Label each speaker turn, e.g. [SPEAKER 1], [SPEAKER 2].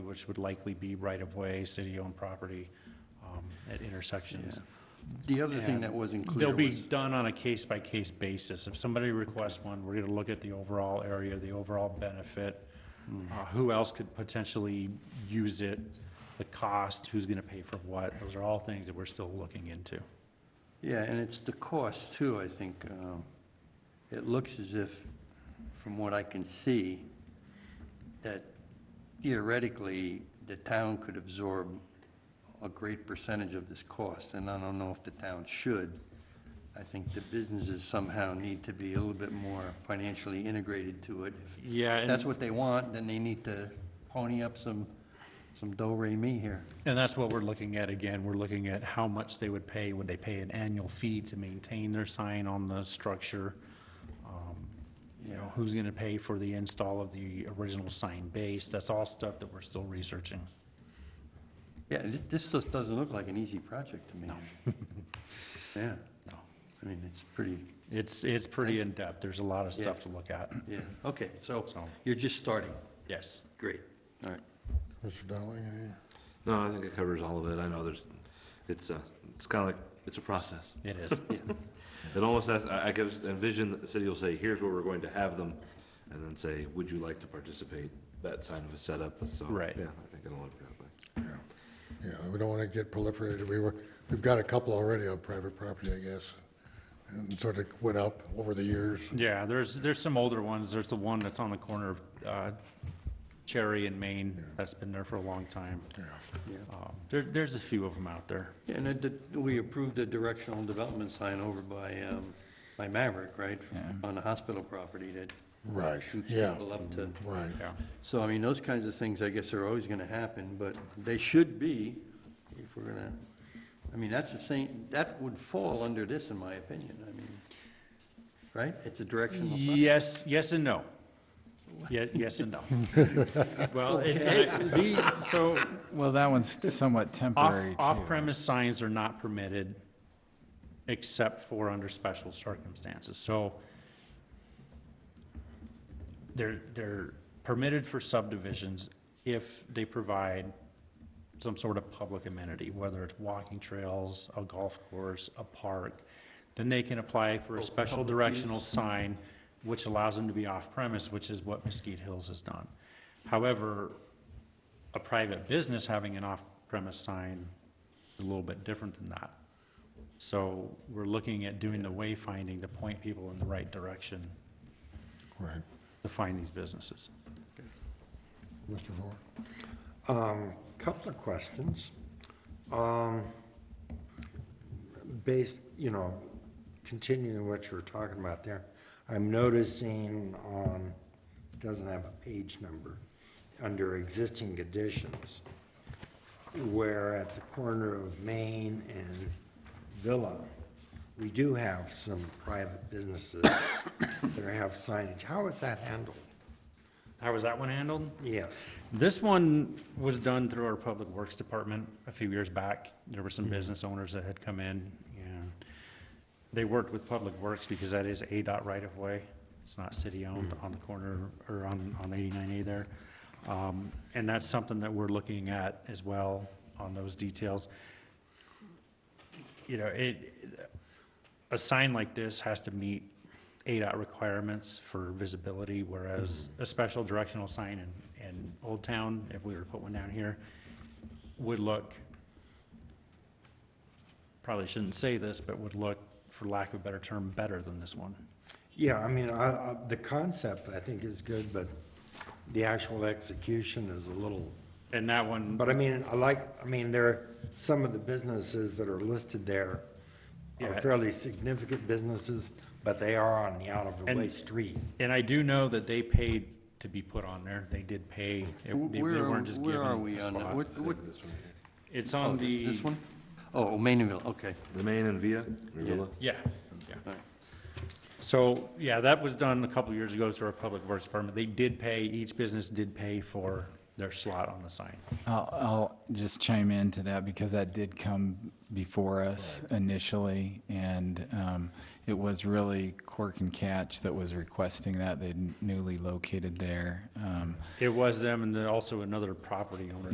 [SPEAKER 1] which would likely be right-of-way, city-owned property um, at intersections.
[SPEAKER 2] The other thing
[SPEAKER 1] And
[SPEAKER 2] that wasn't clear
[SPEAKER 1] They'll be
[SPEAKER 2] was,
[SPEAKER 1] done on a case-by-case basis. If somebody requests one, we're gonna look at the overall area, the overall benefit,
[SPEAKER 2] Hmm.
[SPEAKER 1] uh, who else could potentially use it, the cost, who's gonna pay for what. Those are all things that we're still looking into.
[SPEAKER 2] yeah, and it's the cost too, I think. um, It looks as if, from what I can see, that theoretically, the town could absorb a great percentage of this cost, and I don't know if the town should. I think the businesses somehow need to be a little bit more financially integrated to it. If
[SPEAKER 1] Yeah,
[SPEAKER 2] that's
[SPEAKER 1] and,
[SPEAKER 2] what they want, then they need to pony up some, some do-re-mi here.
[SPEAKER 1] and that's what we're looking at again. We're looking at how much they would pay. Would they pay an annual fee to maintain their sign on the structure? Um, You know, who's gonna pay for the install of the original sign base? That's all stuff that we're still researching.
[SPEAKER 2] Yeah, thi- this just doesn't look like an easy project to me. Yeah.
[SPEAKER 1] No.
[SPEAKER 2] I mean, it's pretty,
[SPEAKER 1] It's, it's pretty
[SPEAKER 2] Extensive.
[SPEAKER 1] in-depth, there's a lot of stuff to look at,
[SPEAKER 2] yeah, okay, so
[SPEAKER 1] so,
[SPEAKER 2] you're just starting.
[SPEAKER 1] yes.
[SPEAKER 2] Great. All right.
[SPEAKER 3] Mr. Dowling, any?
[SPEAKER 4] No, I think it covers all of it. I know there's, it's, uh, it's kind of like, it's a process.
[SPEAKER 1] It is.
[SPEAKER 4] It almost, has- I, I could envision that the city will say, here's where we're going to have them, and then say, would you like to participate? That sign of a setup, so.
[SPEAKER 1] Right.
[SPEAKER 4] Yeah, I think it'll look that way.
[SPEAKER 3] Yeah, yeah, we don't want to get proliferated. We were, we've got a couple already on private property, I guess, and sort of went up over the years.
[SPEAKER 1] Yeah, there's, there's some older ones, there's the one that's on the corner of uh, Cherry and Main, that's been there for a long time.
[SPEAKER 3] Yeah,
[SPEAKER 1] Um, There, there's a few of them out there.
[SPEAKER 2] And it did- we approved a directional development sign over by, um, by Maverick, right? On the hospital property that
[SPEAKER 3] Right,
[SPEAKER 2] shoots
[SPEAKER 3] yeah,
[SPEAKER 2] people up to.
[SPEAKER 3] right.
[SPEAKER 1] Yeah,
[SPEAKER 2] So, I mean, those kinds of things, I guess, are always gonna happen, but they should be, if we're gonna, I mean, that's the same, that would fall under this, in my opinion, I mean, right? It's a directional sign.
[SPEAKER 1] Yes, yes and no. Ye- Yes and no. Well, it- it- the- so
[SPEAKER 5] Well, that one's somewhat
[SPEAKER 1] off,
[SPEAKER 5] temporary, too.
[SPEAKER 1] off-premise signs are not permitted except for under special circumstances. So they're, they're permitted for subdivisions if they provide some sort of public amenity, whether it's walking trails, a golf course, a park. Then they can apply for a special directional sign, which allows them to be off-premise, which is what Mesquite Hills has done. However, a private business having an off-premise sign is a little bit different than that. So we're looking at doing the wayfinding to point people in the right direction
[SPEAKER 3] Right.
[SPEAKER 1] to find these businesses.
[SPEAKER 3] Mr. Ford?
[SPEAKER 6] Um, Couple of questions. Um, Based, you know, continuing what you were talking about there, I'm noticing on, doesn't have a page number, under existing conditions, where at the corner of Main and Villa, we do have some private businesses that have signage. How is that handled?
[SPEAKER 1] How was that one handled?
[SPEAKER 6] Yes.
[SPEAKER 1] This one was done through our Public Works Department a few years back. There were some business owners that had come in, and they worked with Public Works because that is ADOT right-of-way. It's not city-owned on the corner, or on, on 89A there. Um, And that's something that we're looking at as well on those details. You know, it, a sign like this has to meet ADOT requirements for visibility, whereas
[SPEAKER 2] Mm-hmm.
[SPEAKER 1] a special directional sign in, in Old Town, if we were to put one down here, would look, probably shouldn't say this, but would look, for lack of a better term, better than this one.
[SPEAKER 6] Yeah, I mean, I, I, the concept, I think, is good, but the actual execution is a little,
[SPEAKER 1] And that one,
[SPEAKER 6] but I mean, I like, I mean, there, are some of the businesses that are listed there
[SPEAKER 1] Yeah.
[SPEAKER 6] are fairly significant businesses, but they are on the out-of-the-way
[SPEAKER 1] And-
[SPEAKER 6] street.
[SPEAKER 1] and I do know that they paid to be put on there, they did pay, It- they they
[SPEAKER 2] Where are-
[SPEAKER 1] weren't just given
[SPEAKER 2] Where are we
[SPEAKER 1] a
[SPEAKER 2] on, that?
[SPEAKER 1] spot.
[SPEAKER 2] what, what,
[SPEAKER 1] It's on the.
[SPEAKER 2] this one? Oh, Maynardville, okay.
[SPEAKER 4] The main and Via, or
[SPEAKER 2] Yeah.
[SPEAKER 4] Villa?
[SPEAKER 1] Yeah, yeah.
[SPEAKER 2] Alright.
[SPEAKER 1] So, yeah, that was done a couple years ago through our Public Works Department. They did pay, each business did pay for their slot on the sign.
[SPEAKER 5] I'll, I'll just chime into that because that did come before us initially, and um, it was really Cork and Catch that was requesting that. They'd newly located there. um,
[SPEAKER 1] It was them and then also another property owner